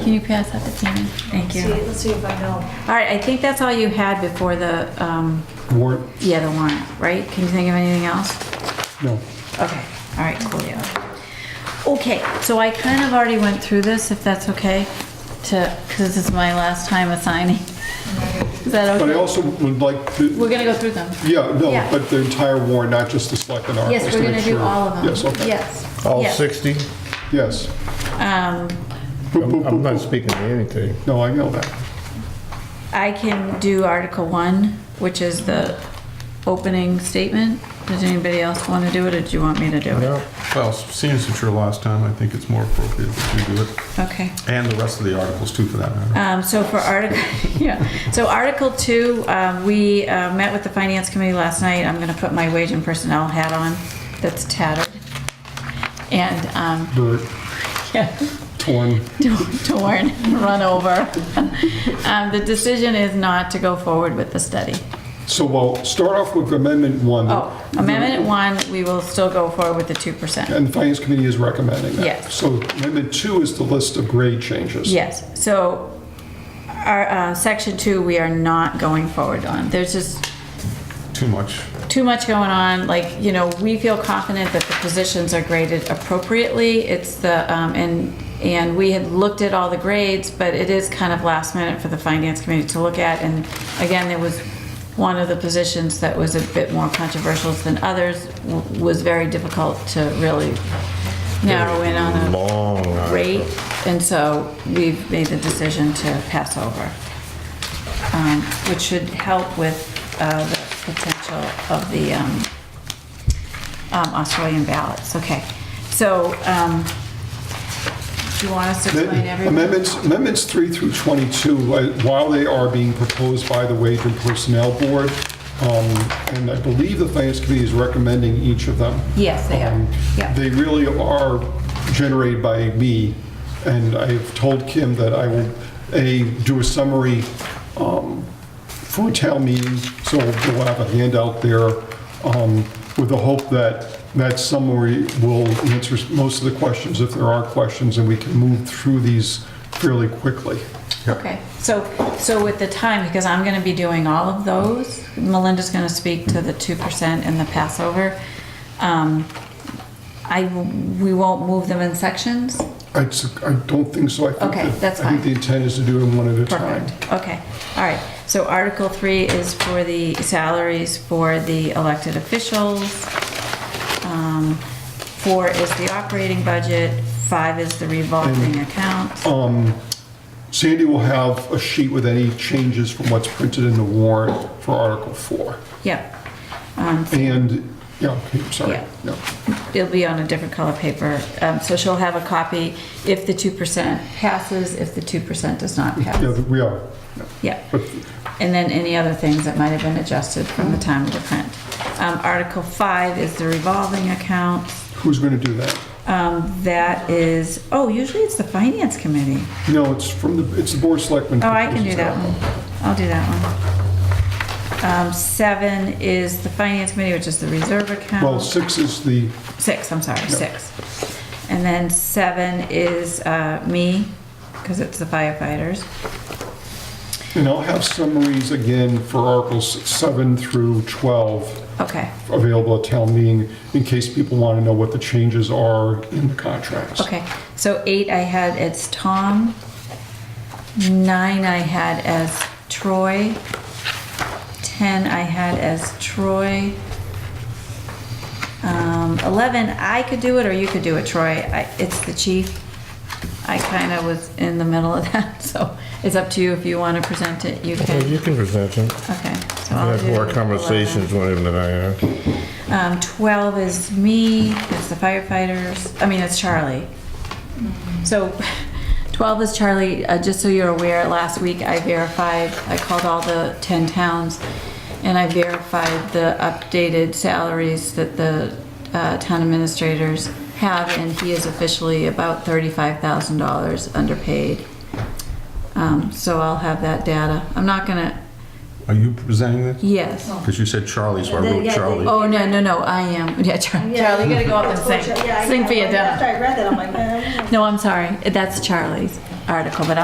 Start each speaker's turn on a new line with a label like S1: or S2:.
S1: Can you pass that to Tammy?
S2: Thank
S3: See,
S2: you.
S3: let's see if I know.
S2: All right, I think that's all you had before the, um,
S4: Warrant,
S2: yeah, the warrant, right? Can you think of anything else?
S4: no.
S2: Okay, all right, cool, yeah. Okay, so I kind of already went through this, if that's okay, to, because this is my last time assigning. Is that
S4: But I
S2: okay?
S4: also would like, to
S2: We're gonna go through them.
S4: yeah, no,
S2: Yeah.
S4: but the entire warrant, not just the selectmen articles.
S2: Yes,
S4: to
S2: we're gonna
S4: make
S2: do
S4: sure-
S2: all of them.
S4: Yes, okay,
S2: Yes.
S5: All
S2: yeah.
S5: 60?
S4: yes.
S2: Um,
S4: Boop,
S5: I'm
S4: boop,
S5: I'm
S4: boop,
S5: not
S4: boop.
S5: speaking to anything.
S4: No, I know that.
S2: I can do Article One, which is the opening statement. Does anybody else want to do it, or do you want me to do it?
S5: No?
S6: Well, seeing as it's your last time, I think it's more appropriate that you do it,
S2: Okay.
S6: and the rest of the articles too, for that matter.
S2: Um, so for article, yeah, so Article Two, um, we, uh, met with the Finance Committee last night. I'm gonna put my wage and personnel hat on that's tattered. And, um,
S4: Dirt,
S2: yeah,
S4: torn,
S2: torn, run over. Um, the decision is not to go forward with the study.
S4: so we'll start off with amendment one.
S2: Oh, Amendment One, we will still go forward with the two percent.
S4: And the finance committee is recommending that.
S2: Yes.
S4: So amendment two is the list of grade changes.
S2: Yes, so our, uh, Section Two, we are not going forward on. There's just,
S6: Too much.
S2: too much going on, like, you know, we feel confident that the positions are graded appropriately, it's the, um, and, and we had looked at all the grades, but it is kind of last minute for the finance committee to look at, and again, there was one of the positions that was a bit more controversial than others, w- was very difficult to really narrow in on a
S5: Long
S2: rate,
S5: article.
S2: and so we've made the decision to pass over, um, which should help with uh, the potential of the um, um, Australian ballots. Okay, so um, do you want us to explain
S4: Amend-
S2: everything?
S4: Amendments, amendments three through 22, uh, while they are being proposed by the Wage and Personnel Board, um, and I believe the Finance Committee is recommending each of them.
S2: Yes, they are.
S4: Um,
S2: Yeah.
S4: They really are generated by me, and I've told Kim that I will, A, do a summary um, for a town meeting, so we'll have a handout there um, with the hope that that summary will answer most of the questions, if there are questions, and we can move through these fairly quickly.
S2: Okay, so, so with the time, because I'm gonna be doing all of those, Melinda's gonna speak to the two percent and the Passover. um, I, we won't move them in sections?
S4: I s- I don't think so. I think
S2: Okay,
S4: that-
S2: that's
S4: I think the
S2: fine.
S4: intent is to do them one at a time.
S2: Perfect, okay, all right. So Article Three is for the salaries for the elected officials. Um, Four is the operating budget, five is the revolving accounts.
S4: Sandy will have a sheet with any changes from what's printed in the warrant for Article 4.
S2: Yep,
S4: And, yeah, okay, sorry.
S2: Yeah.
S4: No.
S2: it'll be on a different color paper. Um, So she'll have a copy if the two percent passes, if the two percent does not
S4: Yeah,
S2: pass.
S4: we are.
S2: Yep.
S4: But
S2: And then any other things that might have been adjusted from the time of the print. Um, Article Five is the revolving accounts.
S4: who's going to do that?
S2: Um, that is, oh, usually it's the finance committee.
S4: No, it's from the, it's the Board of Selectmen.
S2: Oh, I can do that one. I'll do that one. Um, seven is the finance committee, which is the reserve
S4: Well,
S2: account.
S4: six is the,
S2: Six, I'm sorry, six. And then seven is, uh, me, because it's the firefighters.
S4: and I'll have summaries again for Articles 7 through 12
S2: Okay,
S4: available at town meeting in case people want to know what the changes are in the contracts.
S2: okay. So eight I had as Tom. Nine I had as Troy. Ten I had as Troy. Um, 11, I could do it or you could do it, Troy. I, it's the chief. I kind of was in the middle of that, so it's up to you if you want to present it, you
S5: Well,
S2: can.
S5: You can present them.
S2: Okay. so
S5: I
S2: I'll
S5: had
S2: do
S5: more
S2: 11.
S5: conversations with him than I have.
S2: Um, 12 is me, it's the firefighters, I mean, it's Charlie. So 12 is Charlie, uh, just so you're aware, last week I verified, I called all the 10 towns and I verified the updated salaries that the uh, town administrators have and he is officially about $35,000 underpaid. Um, So I'll have that data. I'm not gonna,
S6: Are you presenting this?
S2: yes.
S6: Because you said Charlie, so I
S3: Yeah,
S6: wrote
S3: yeah,
S6: Charlie.
S2: Oh, no, no, no, I am, yeah, Charlie,
S3: Yeah.
S2: Charlie, you gotta go up and
S3: Yeah,
S2: sing,
S3: I-
S2: sing for your
S3: After
S2: dad.
S3: I read that, I'm like, eh.
S2: No, I'm sorry, that's Charlie's. article, but